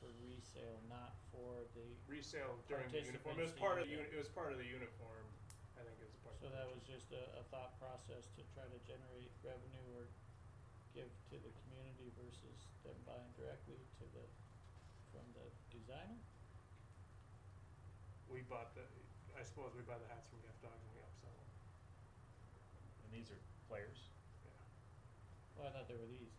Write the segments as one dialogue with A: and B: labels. A: resale, not for the,
B: resale during the uniform. It was
A: Participants to
B: part of the,
A: use
B: uni- it was part of the uniform, I think it was part of the.
A: so that was just a, a thought process to try to generate revenue or give to the community versus them buying directly to the, from the designer?
B: We bought the, I suppose we buy the hats from Gift Dogs and we upsell them,
C: And these are players.
B: yeah.
A: Well, I thought they were these.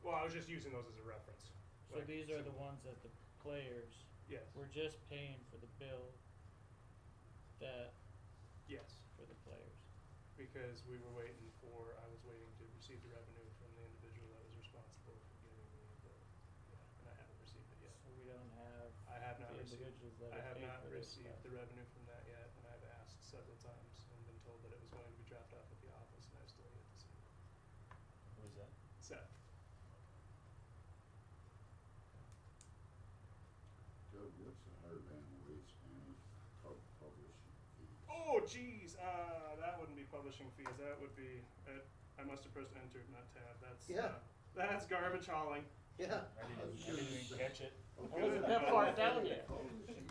B: Well, I was just using those as a reference.
A: So
B: Like,
A: these are the
B: simple-
A: ones that the players,
B: Yes,
A: we're just paying for the bill that,
B: yes,
A: for the players.
B: because we were waiting for, I was waiting to receive the revenue from the individual that was responsible for giving me the, yeah, and I haven't received it yet.
A: So we don't have
B: I have
A: the
B: not received,
A: individuals that
B: I
A: are
B: have
A: paying
B: not
A: for this
B: received the revenue from that yet, and I've asked several times and been told that it was going to be dropped off at the office, and I've still yet to see it.
C: Who is that?
B: Seth,
D: Doug, what's the Hardman Waste Management pub- publishing fee?
B: Oh, jeez. Uh, that wouldn't be publishing fees. That would be. Uh, I must have pressed enter, not tab. That's
E: Yeah.
B: uh, that's garbage hauling.
E: Yeah.
C: I didn't, I didn't even catch it.
D: Okay.
B: wasn't that far
A: down yet.
D: Publishing fees.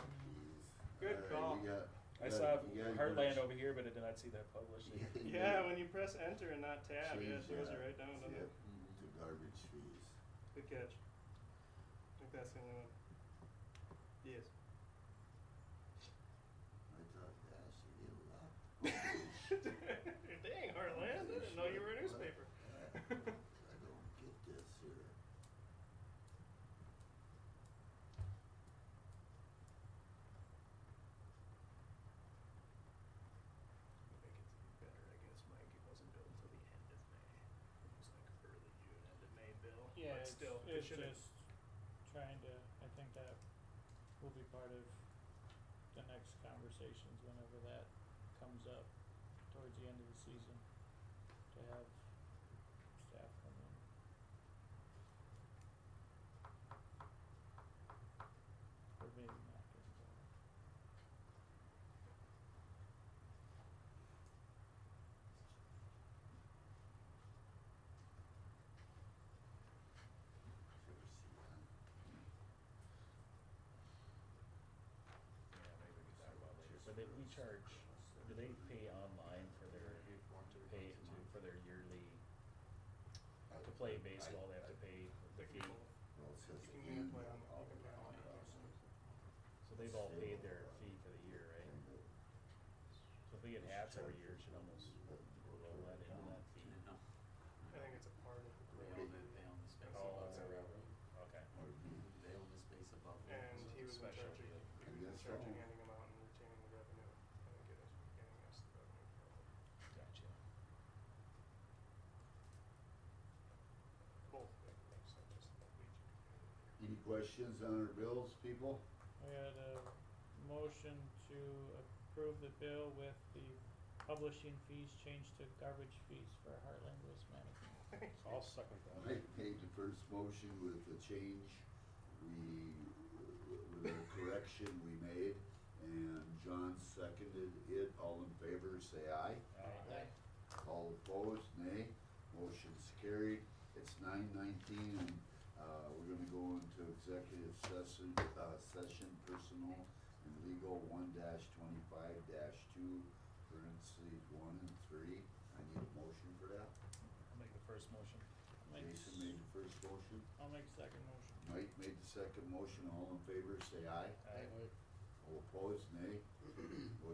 B: Good
D: All right,
B: call.
D: we got-
C: I
D: we
C: saw
D: got- we gotta
C: Heartland
D: go-
C: over here, but I did not see that published.
B: Yeah, when you press enter and not tab, yeah, it
D: Change
B: throws
D: that.
B: it right down, Mm-hmm. doesn't
D: Yep,
B: it?
D: to garbage fees.
B: Good catch. I think that's the only one. Yes.
D: I thought, gosh, you get a lot.
B: Dang, Heartland! I didn't know you were a newspaper.
D: I don't get this here.
B: Make it better, I guess, Mike. It wasn't billed until the end of May. It was like early June, end of May bill.
A: Yeah,
B: but
A: it's,
B: still, it
A: it's
B: should have.
A: just trying to, I think that will be part of the next conversations whenever that comes up towards the end of the season, to have staff come in. Or maybe not. during the fall.
D: Ever see that?
C: Yeah, maybe we can talk about it later. But they, we charge, do they pay online for their, pay to, for their yearly,
D: I-
C: to play
D: I-
C: baseball, they have to
D: I-
C: pay the fee?
D: Well, it says
B: You can either play on- you can
D: annual
B: play
D: outbound
B: online or
D: processing.
C: So they've all paid their fee for the year, right? So if they get hats every year, it should almost roll that into that fee.
F: No,
B: I think it's a part of the
F: they own the, they own the space
C: Oh,
F: above
C: it's a
F: the
C: railroad. Okay.
F: They own the space above the
B: And he was in charge
C: Special
B: of,
C: deal.
B: he was in
D: Yes,
B: charge of
D: sir.
B: handing them out and retaining the revenue, I think it is, getting us the revenue from it.
C: Gotcha.
B: Both, it makes sense, just like we do.
D: Any questions on our bills, people?
A: We had a motion to approve the bill with the publishing fees changed to garbage fees for Heartland Waste Management.
C: I'll second
D: I made the first motion with the change, we, with the correction we made, and John seconded it, all in favor, say aye. All opposed, nay. Motion's carried. It's nine nineteen, and, uh, we're gonna go into executive session, uh, session personal and legal one dash twenty-five dash two, parentheses one and three. I need a motion for that.
C: I'll make the first motion.
A: Mike,
D: Jason made the first motion.
A: I'll make second motion.
D: Mike made
C: Uh,
D: the second motion. All in favor, say aye.
C: Aye.
D: All opposed, nay.